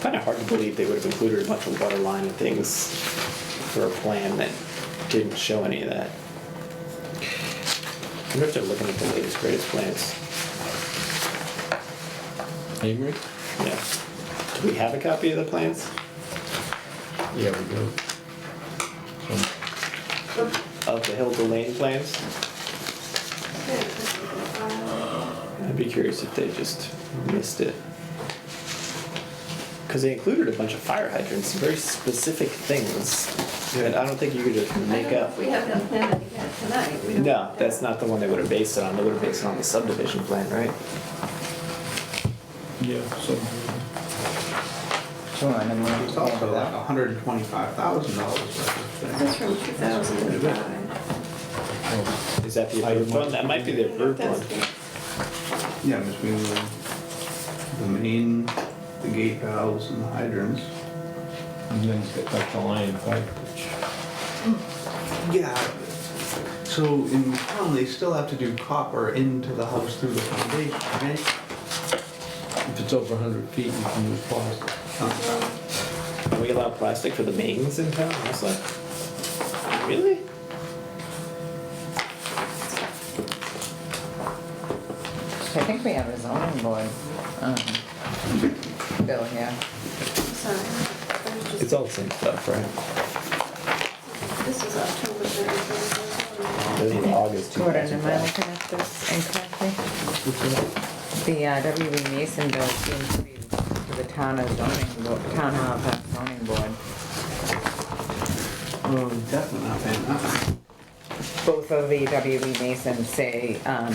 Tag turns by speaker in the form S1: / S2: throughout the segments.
S1: Kind of hard to believe they would have included a bunch of water line and things for a plan that didn't show any of that. I wonder if they're looking at the latest greatest plans.
S2: Amory?
S1: Yeah. Do we have a copy of the plans?
S2: Yeah, we do.
S1: Of the Hill to Lane plans? I'd be curious if they just missed it. Because they included a bunch of fire hydrants, very specific things that I don't think you could just
S3: I
S1: make
S3: don't know
S1: up.
S3: if we have that plan that we had tonight. We don't-
S1: No, that's not the one they would have based it on. They would have based it on the subdivision plan, right?
S2: Yeah, so.
S4: Sure, and then we'll-
S5: It's also like hundred and twenty-five thousand dollars worth of
S3: This is from
S5: things.
S3: 2005.
S1: Is that the approved one? That might be the approved one.
S5: Yeah, between the, the main, the gate valves and the hydrants.
S2: And then it's got like the lion pipe, which,
S5: Yeah. So in town, they still have to do copper into the house through the foundation, right?
S2: if it's over hundred feet, you can use plastic.
S5: Uh,
S1: Can we allow plastic for the mains in town? I was like, really?
S4: I think we have a zoning board, um, bill here.
S3: Sorry.
S1: It's all the same stuff, right?
S3: This is October 31st.
S1: This is August
S4: Jordan, am I
S1: 2005.
S4: looking at this incorrectly? The uh, W.E. Mason bill seems to be to the town of zoning board, town of uh, zoning board.
S5: Oh, definitely not paying that.
S4: Both of the W.E. Mason say, um,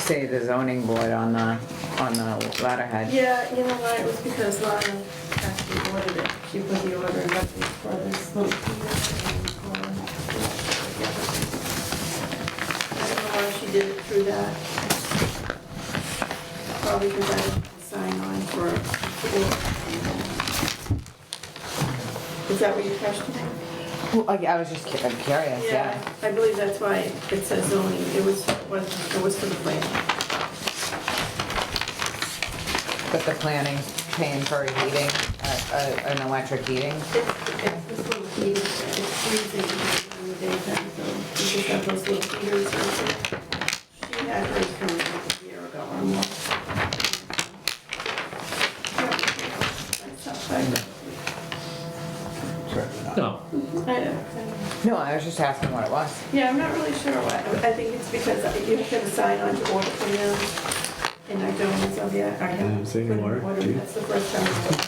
S4: say the zoning board on the, on the letterhead.
S3: Yeah, you know why? It was because Lana actually ordered it. She put the order in Buckley's for this little piece. and, um, I don't know why she did it through that. Probably because I didn't sign on for it. Is that what you're questioning?
S4: Well, I I was just cu- I'm curious, yeah.
S3: I believe that's why it says zoning. It was, was- it was for the plan.
S4: But the planning paying for heating, uh, uh, an electric heating.
S3: It's, it's this little heater, it's freezing in the daytime, so you just have those little heaters or something. She had hers from like a year ago or more.
S5: Certainly not.
S2: No,
S3: I don't,
S4: No, I was just asking what it was.
S3: yeah, I'm not really sure why. I think it's because you have to sign on to order from them. And I don't, so yeah, I
S1: I'm
S3: have.
S1: saying Mm, order, too.
S3: That's the first time.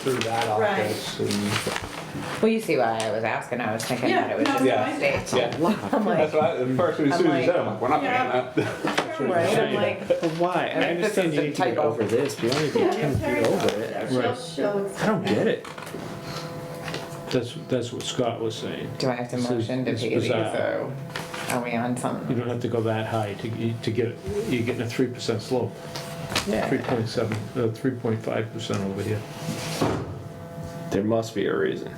S5: Through that
S3: Right.
S5: office and.
S4: Well, you see why I was asking, I was thinking that it was
S3: Yeah,
S4: just
S3: no,
S4: a
S3: I-
S4: mistake.
S1: Yeah.
S4: I'm like,
S5: That's why, the first, as soon as you said, it, I'm like, we're not paying that.
S4: right, I'm like,
S1: But why?
S4: I
S1: And I
S4: think this
S1: understand
S4: is
S1: you
S4: a
S1: need to get
S4: typo.
S1: over this, but you only
S3: Yeah,
S1: get ten
S3: Terry
S1: feet over
S3: knows.
S1: it.
S3: She'll,
S2: Right.
S3: she'll.
S1: I don't get it.
S2: that's, that's what Scott was saying.
S4: do I have to
S2: This is-
S4: motion to
S2: it's
S4: pay these,
S2: bizarre.
S4: or are we on
S2: You
S4: something?
S2: don't have to go that high to, to get, it. you're getting a three percent slope, three
S4: Yeah.
S2: point seven, uh, three point five percent over here.
S1: There must be a reason.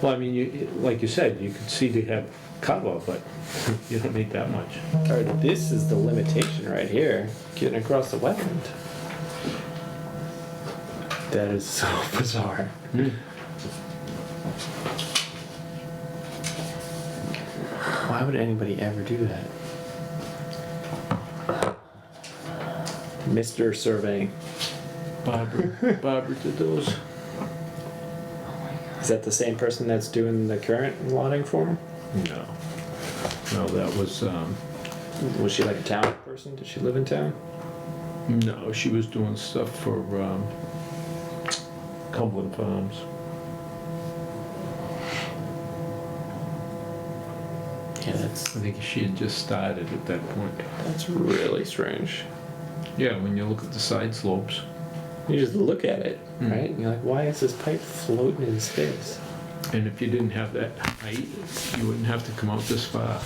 S2: Well, I mean, you, like you said, you could see they have cover, but you don't need that much.
S1: Or this is the limitation right here, getting across the wetland. That is so bizarre. Why would anybody ever do that? Mr. Surveying,
S2: Barbara, Barbara did those.
S1: is that the same person that's doing the current lotting form?
S2: No. No, that was, um,
S1: Was she like a town person? Did she live in town?
S2: no, she was doing stuff for, um, Cumberland Farms.
S1: Yeah, that's
S2: I think she had just started at that point.
S1: that's really strange.
S2: Yeah, when you look at the side slopes.
S1: You just look at it,
S2: Mm.
S1: right? And you're like, why is this pipe floating in space?
S2: And if you didn't have that height, you wouldn't have to come out this far.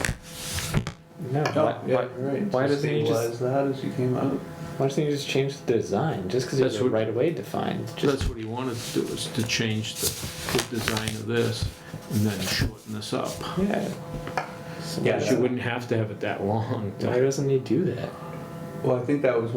S1: No.
S2: Oh,
S1: why,
S5: Oh,
S1: why, why doesn't he just
S5: Realize that as you came out.
S1: why doesn't he just change the design? Just because
S2: That's
S1: it's
S2: what-
S1: right away defined. Just
S2: That's what he wanted to do, was to change the, the design of this and then shorten this up.
S1: yeah. So
S2: Yeah,
S1: why
S2: she
S1: doesn't-
S2: wouldn't have to have it that long. to-
S1: Why doesn't he do that?
S5: Well, I think that was